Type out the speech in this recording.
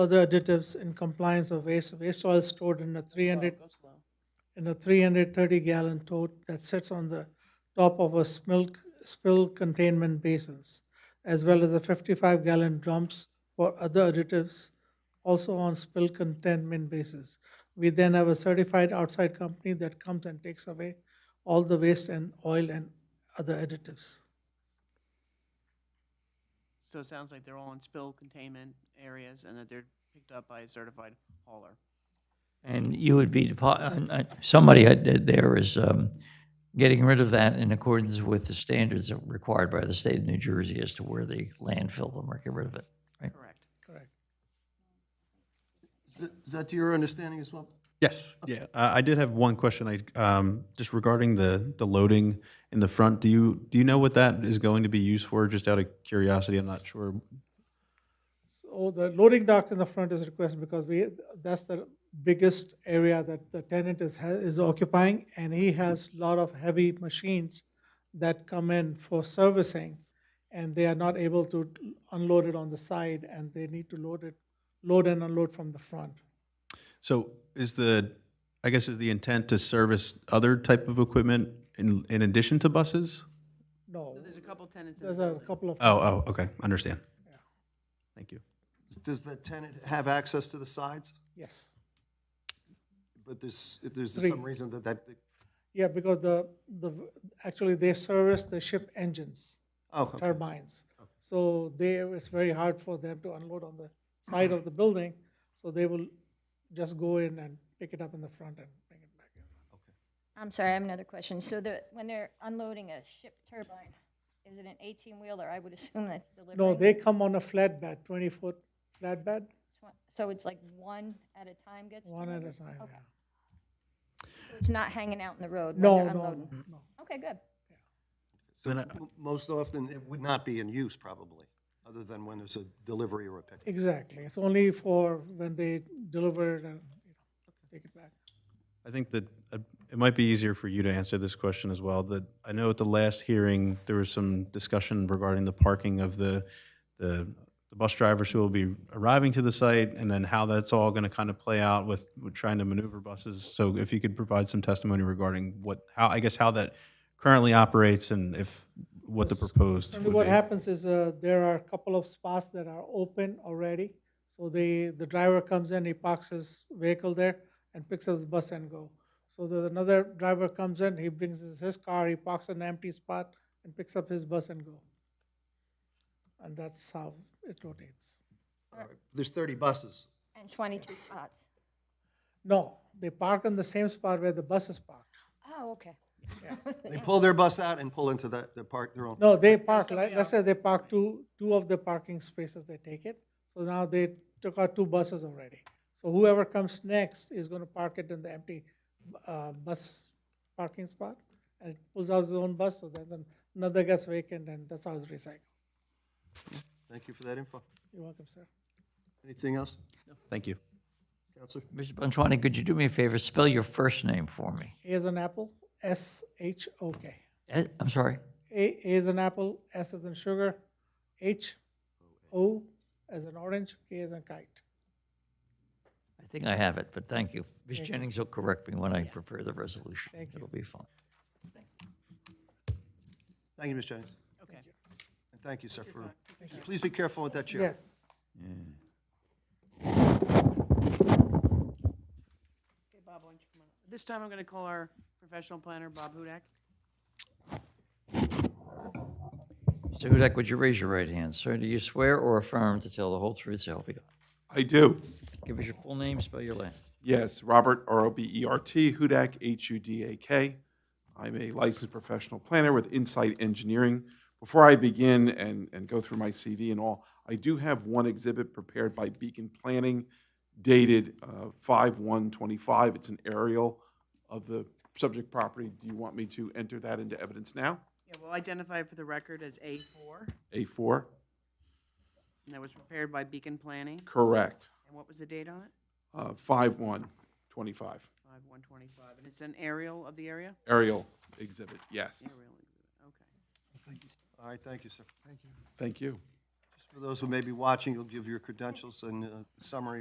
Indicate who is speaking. Speaker 1: other additives in compliance of waste, waste oil stored in a three hundred, in a three hundred thirty gallon tote that sits on the top of a smilk, spill containment basins, as well as the fifty-five gallon drums for other additives also on spill containment basis. We then have a certified outside company that comes and takes away all the waste and oil and other additives.
Speaker 2: So it sounds like they're all in spill containment areas and that they're picked up by a certified hauler.
Speaker 3: And you would be, depo- uh, uh, somebody had- uh, there is um, getting rid of that in accordance with the standards that were required by the state of New Jersey as to where the landfill will get rid of it, right?
Speaker 2: Correct.
Speaker 1: Correct.
Speaker 4: Is that- Is that to your understanding as well?
Speaker 5: Yes, yeah. Uh, I did have one question. I um, just regarding the the loading in the front. Do you do you know what that is going to be used for? Just out of curiosity, I'm not sure.
Speaker 1: So the loading dock in the front is requested because we, that's the biggest area that the tenant is, ha- is occupying, and he has a lot of heavy machines that come in for servicing, and they are not able to unload it on the side, and they need to load it, load and unload from the front.
Speaker 5: So is the I guess is the intent to service other type of equipment in in addition to buses?
Speaker 1: No,
Speaker 2: There's a couple tenants in the
Speaker 1: there's a
Speaker 2: building.
Speaker 1: couple of,
Speaker 5: Oh, oh, okay, understand. Thank you.
Speaker 4: Does the tenant have access to the sides?
Speaker 1: yes.
Speaker 4: But there's, there's
Speaker 1: Three.
Speaker 4: some reason that that,
Speaker 1: Yeah, because the, the, actually, they service the ship engines.
Speaker 4: oh, okay.
Speaker 1: turbines. So they, it's very hard for them to unload on the side of the building, so they will just go in and pick it up in the front and bring it back in.
Speaker 6: I'm sorry, I have another question. So the, when they're unloading a ship turbine, is it an eighteen-wheeler? I would assume that's delivery.
Speaker 1: No, they come on a flatbed, twenty-foot flatbed,
Speaker 6: So it's like one at a time gets
Speaker 1: one at a
Speaker 6: delivered?
Speaker 1: time, yeah.
Speaker 6: It's not hanging out in the road when
Speaker 1: No,
Speaker 6: they're
Speaker 1: no, no,
Speaker 6: unloading?
Speaker 1: no.
Speaker 6: Okay, good.
Speaker 4: So m- Most often, it would not be in use probably, other than when there's a delivery or a pickup.
Speaker 1: exactly. It's only for when they deliver it and, you know, take it back.
Speaker 5: I think that uh, it might be easier for you to answer this question as well. That I know at the last hearing, there was some discussion regarding the parking of the, the the bus drivers who will be arriving to the site and then how that's all going to kind of play out with with trying to maneuver buses. So if you could provide some testimony regarding what, how, I guess how that currently operates and if, what the proposed
Speaker 1: And
Speaker 5: would
Speaker 1: what
Speaker 5: be.
Speaker 1: happens is, uh, there are a couple of spots that are open already. So they, the driver comes in, he parks his vehicle there and picks up the bus and go. So there's another driver comes in, he brings his, his car, he parks in an empty spot and picks up his bus and go. And that's how it rotates.
Speaker 4: There's 30 buses.
Speaker 6: And twenty-two spots.
Speaker 1: No, they park in the same spot where the bus is parked.
Speaker 6: Oh, okay.
Speaker 4: They pull their bus out and pull into that, their park, their own.
Speaker 1: No, they park, like, let's say they park two, two of the parking spaces, they take it. So now they took out two buses already. So whoever comes next is gonna park it in the empty, uh, bus parking spot. And it pulls out his own bus, so then- then another gets vacant and that's how it's recycled.
Speaker 4: Thank you for that info.
Speaker 1: You're welcome, sir.
Speaker 4: Anything else,
Speaker 5: Thank you.
Speaker 4: Counselor?
Speaker 3: Mr. Bonjwani, could you do me a favor, spell your first name for me?
Speaker 1: A is an apple, S H O K.
Speaker 3: Eh, I'm sorry,
Speaker 1: A, A is an apple, S is in sugar, H O as an orange, K as in kite.
Speaker 3: I think I have it, but thank you. Ms. Jennings will correct me when I prepare the resolution.
Speaker 1: Thank you.
Speaker 3: It'll be fine.
Speaker 4: Thank you, Ms. Jennings.
Speaker 2: Okay.
Speaker 4: And thank you, sir, for, please be careful with that chair.
Speaker 1: Yes.
Speaker 2: Okay, Bob, why don't you come on up? This time I'm going to call our professional planner, Bob Hudak.
Speaker 3: Mr. Hudak, would you raise your right hand? Sir, do you swear or affirm to tell the whole truth, so help you? God?
Speaker 7: I do.
Speaker 3: Give us your full name, spell your last.
Speaker 7: Yes, Robert, R O B E R T, Hudak, H U D A K. I'm a licensed professional planner with Insight Engineering. Before I begin and, and go through my CV and all, I do have one exhibit prepared by Beacon Planning dated uh, five one twenty-five. It's an aerial of the subject property. Do you want me to enter that into evidence now?
Speaker 2: Yeah, we'll identify it for the record as A4,
Speaker 7: A four?
Speaker 2: and that was prepared by Beacon Planning.
Speaker 7: Correct. Uh,
Speaker 2: And what was the date on it?
Speaker 7: Five one twenty-five.
Speaker 2: 5125. And it's an aerial of the area?
Speaker 7: Aerial exhibit, yes.
Speaker 2: Aerial, okay.
Speaker 4: All right, thank you, sir. Thank you.
Speaker 7: Thank you.
Speaker 4: For those who may be watching, you'll give your credentials and uh, summary